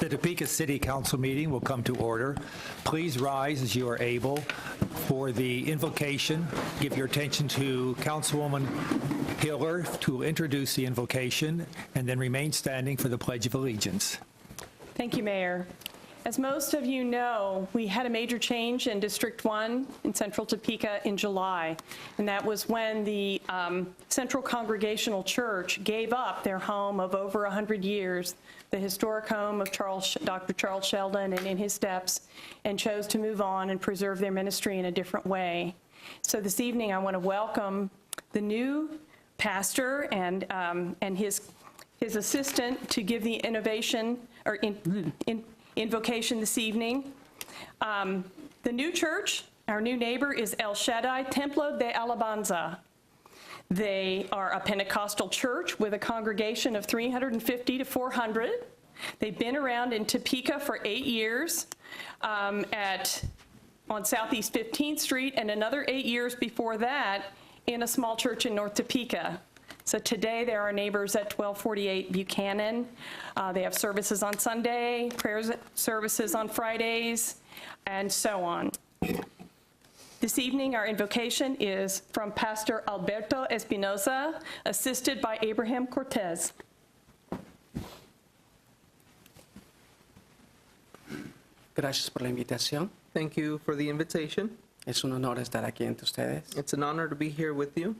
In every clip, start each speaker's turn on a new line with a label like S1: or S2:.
S1: The Topeka City Council meeting will come to order. Please rise as you are able for the invocation. Give your attention to Councilwoman Hiller to introduce the invocation, and then remain standing for the Pledge of Allegiance.
S2: Thank you, Mayor. As most of you know, we had a major change in District 1 in central Topeka in July, and that was when the um, Central Congregational Church gave up their home of over 100 years, the historic home of Charles, Dr. Charles Sheldon and in his steps, and chose to move on and preserve their ministry in a different way. So this evening, I want to welcome the new pastor and, um, and his his assistant to give the innovation, or in- in- invocation this evening. Um, The new church, our new neighbor, is El Shaddai Templo de Alabanza. They are a Pentecostal church with a congregation of 350 to 400. They've been around in Topeka for eight years um, at, on Southeast 15th Street, and another eight years before that in a small church in North Topeka. So today, they're our neighbors at 1248 Buchanan. Uh, They have services on Sunday, prayer services on Fridays, and so on. This evening, our invocation is from Pastor Alberto Espinoza, assisted by Abraham Cortez.
S3: Gracias por la invitación.
S4: Thank you for the invitation.
S3: Es un honor estar aquí entre ustedes
S4: It's an honor to be here with you,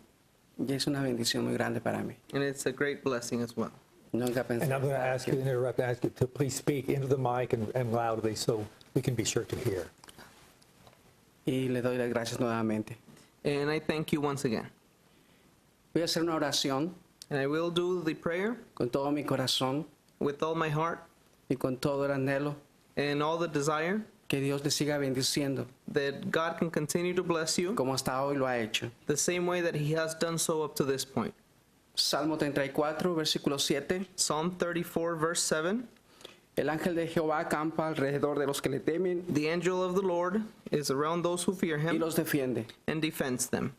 S3: y es una bendición muy grande para mí.
S4: and it's a great blessing as well.
S3: Nunca pensé.
S1: And I'm going to ask you, to interrupt, ask you to please speak into the mic and and loudly so we can be sure to hear.
S3: Y le doy las gracias nuevamente.
S4: And I thank you once again.
S3: Voy a hacer una oración
S4: And I will do the prayer
S3: con todo mi corazón
S4: with all my heart
S3: y con todo el anhelo
S4: and all the desire
S3: que Dios le siga bendiciendo,
S4: that God can continue to bless you
S3: como hasta hoy lo ha hecho.
S4: the same way that He has done so up to this point.
S3: Salmo 34, versículo 7.
S4: Psalm 34, verse 7
S3: El ángel de Jehová acampa alrededor de los que le temen
S4: The angel of the Lord is around those who fear
S3: y
S4: Him
S3: los defiende.
S4: and defends them.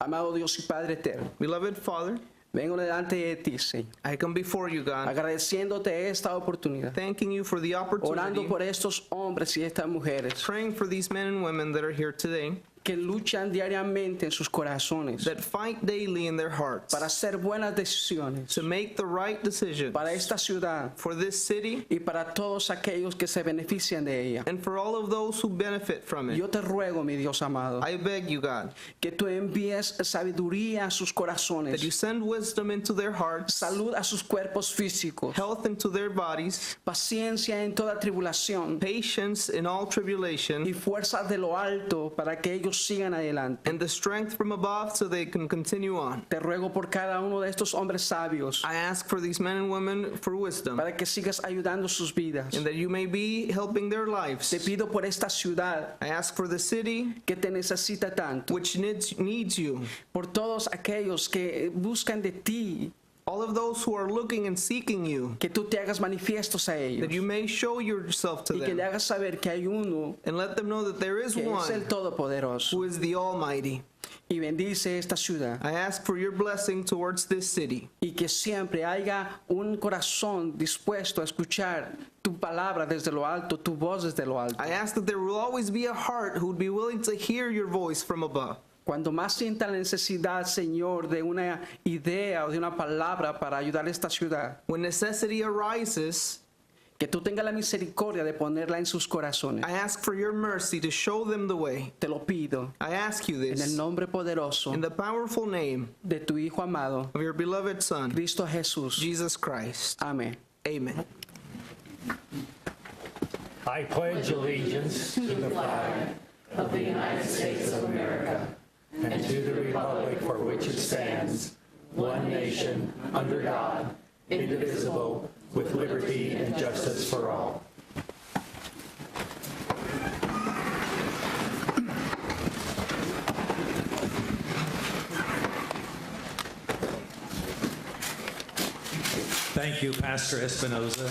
S3: Amado Dios y Padre eterno,
S4: Beloved Father,
S3: vengo delante de ti, Señor,
S4: I come before you, God,
S3: agradeciéndote esta oportunidad,
S4: thanking you for the
S3: orando
S4: opportunity,
S3: por estos hombres y estas mujeres
S4: praying for these men and women that are here today.
S3: que luchan diariamente en sus corazones
S4: that fight daily in their hearts
S3: para hacer buenas decisiones
S4: to make the right decisions
S3: para esta ciudad
S4: for this city
S3: y para todos aquellos que se benefician de ella.
S4: and for all of those who benefit from it.
S3: Yo te ruego, mi Dios amado,
S4: I beg you, God,
S3: que tú envíes sabiduría a sus
S4: that you
S3: corazones,
S4: send wisdom into their hearts,
S3: salud a sus cuerpos físicos,
S4: health into their bodies,
S3: paciencia en toda tribulación
S4: patience in all
S3: y
S4: tribulation,
S3: fuerzas de lo alto para que ellos sigan adelante.
S4: and the strength from above so they can continue on.
S3: Te ruego por cada uno de estos hombres sabios
S4: I ask for these men and women for wisdom
S3: para que sigas ayudando sus vidas.
S4: and that you may be helping their
S3: Te
S4: lives.
S3: pido por esta ciudad
S4: I ask for the city
S3: que te necesita tanto.
S4: which needs, needs you,
S3: por todos aquellos que buscan de ti,
S4: all of those who are looking and seeking you,
S3: que tú te hagas manifiestos a ellos
S4: that you may show yourself to
S3: y que
S4: them.
S3: le hagas saber que hay uno
S4: and let them know that there is
S3: que es el
S4: one
S3: Todopoderoso
S4: who is the Almighty.
S3: y bendice esta ciudad
S4: I ask for your blessing towards this city,
S3: y que siempre haya un corazón dispuesto a escuchar tu palabra desde lo alto, tu voz desde lo alto.
S4: I ask that there will always be a heart who would be willing to hear your voice from above.
S3: Cuando más sienta la necesidad, Señor, de una idea o de una palabra para ayudar a esta ciudad,
S4: When necessity arises,
S3: que tú tengas la misericordia de ponerla en sus corazones.
S4: I ask for your mercy to show them the way.
S3: Te lo pido
S4: I ask you
S3: en el
S4: this
S3: nombre poderoso
S4: in the powerful name
S3: de tu Hijo amado,
S4: of your beloved Son,
S3: Cristo Jesús.
S4: Jesus Christ.
S3: Amén.
S4: Amen.
S1: I pledge allegiance to the flag of the United States of America and to the republic for which it stands, one nation, under God, indivisible, with liberty and justice for all. Thank you, Pastor Espinoza.